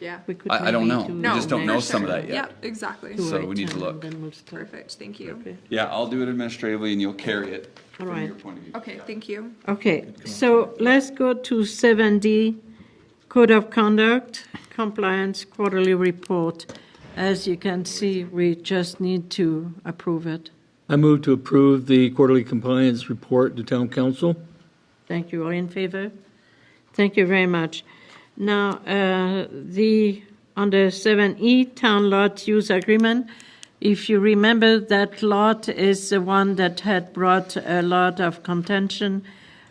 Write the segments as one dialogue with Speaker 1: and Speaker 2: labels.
Speaker 1: Yeah.
Speaker 2: We could
Speaker 3: I- I don't
Speaker 2: maybe
Speaker 3: know.
Speaker 2: do
Speaker 3: We
Speaker 1: No,
Speaker 3: just don't
Speaker 1: for
Speaker 3: know
Speaker 1: sure.
Speaker 3: some of that yet.
Speaker 1: Yep, exactly.
Speaker 2: do
Speaker 3: so
Speaker 2: it
Speaker 3: we need to
Speaker 2: and
Speaker 3: look.
Speaker 2: Then we'll start.
Speaker 1: Perfect, thank you.
Speaker 2: Okay.
Speaker 3: Yeah, I'll do it administratively and you'll carry it
Speaker 2: All
Speaker 3: from
Speaker 2: right.
Speaker 3: your point of view.
Speaker 1: Okay, thank you.
Speaker 2: Okay, so let's go to seven D, Code of Conduct Compliance Quarterly Report. As you can see, we just need to approve it.
Speaker 4: I move to approve the quarterly compliance report to town council.
Speaker 2: Thank you. All in favor? Thank you very much. Now, uh, the, under 7E, Town Lot Use Agreement, if you remember, that lot is the one that had brought a lot of contention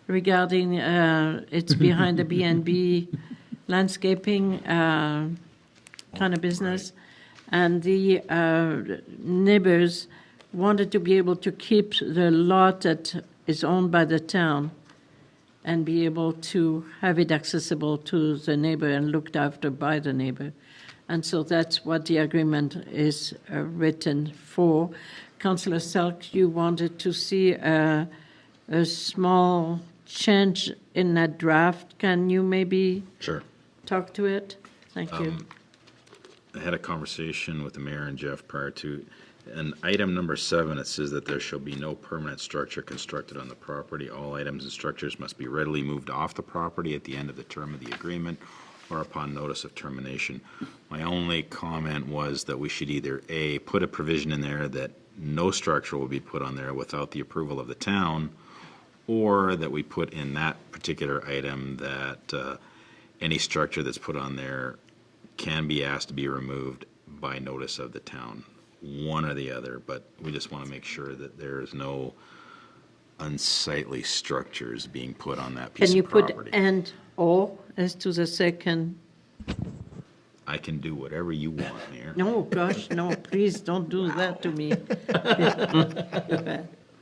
Speaker 2: regarding, uh, it's behind the B and B landscaping uh, kind of business. And the uh, neighbors wanted to be able to keep the lot that is owned by the town and be able to have it accessible to the neighbor and looked after by the neighbor. And so that's what the agreement is uh, written for. Councillor Selk, you wanted to see a, a small change in that draft. Can you maybe
Speaker 5: Sure.
Speaker 2: talk to it? Thank you.
Speaker 5: I had a conversation with the mayor and Jeff prior to, and item number seven, it says that there shall be no permanent structure constructed on the property. All items and structures must be readily moved off the property at the end of the term of the agreement or upon notice of termination. My only comment was that we should either, A, put a provision in there that no structure will be put on there without the approval of the town, or that we put in that particular item that uh, any structure that's put on there can be asked to be removed by notice of the town, one or the other, but we just want to make sure that there is no unsightly structures being put on that piece
Speaker 2: Can you
Speaker 5: of
Speaker 2: put
Speaker 5: property.
Speaker 2: and or as to the second?
Speaker 5: I can do whatever you want, Mayor.
Speaker 2: No, gosh, no, please don't do that to me.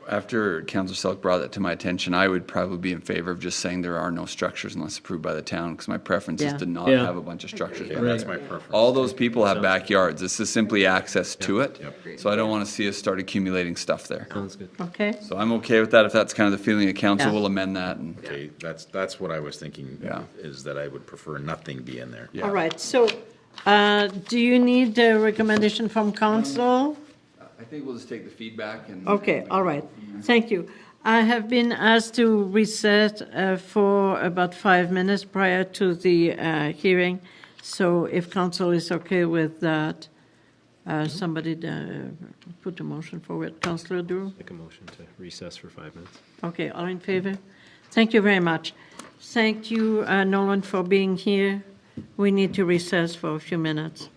Speaker 3: After Councilor Selk brought that to my attention, I would probably be in favor of just saying there are no structures unless approved by the town, because my preference is
Speaker 2: Yeah.
Speaker 3: to not
Speaker 4: Yeah.
Speaker 3: have a bunch of structures.
Speaker 5: Yeah, That's my preference.
Speaker 3: All those people have backyards. This is simply access to it.
Speaker 1: Yep.
Speaker 3: So I don't want to see us start accumulating stuff there.
Speaker 4: Sounds good.
Speaker 2: Okay?
Speaker 3: So I'm okay with that. If that's kind of the feeling of council,
Speaker 2: Yeah.
Speaker 3: we'll amend that and.
Speaker 5: Okay, that's, that's what I was thinking,
Speaker 3: Yeah.
Speaker 5: is that I would prefer nothing be in there.
Speaker 2: All right, so uh, do you need a recommendation from council?
Speaker 3: I think we'll just take the feedback and.
Speaker 2: Okay, all right, thank you. I have been asked to reset uh, for about five minutes prior to the uh, hearing, so if council is okay with that, uh, somebody uh, put a motion forward. Councillor Drew?
Speaker 6: Make a motion to recess for five minutes.
Speaker 2: Okay, all in favor? Thank you very much. Thank you, uh, Nolan, for being here. We need to recess for a few minutes.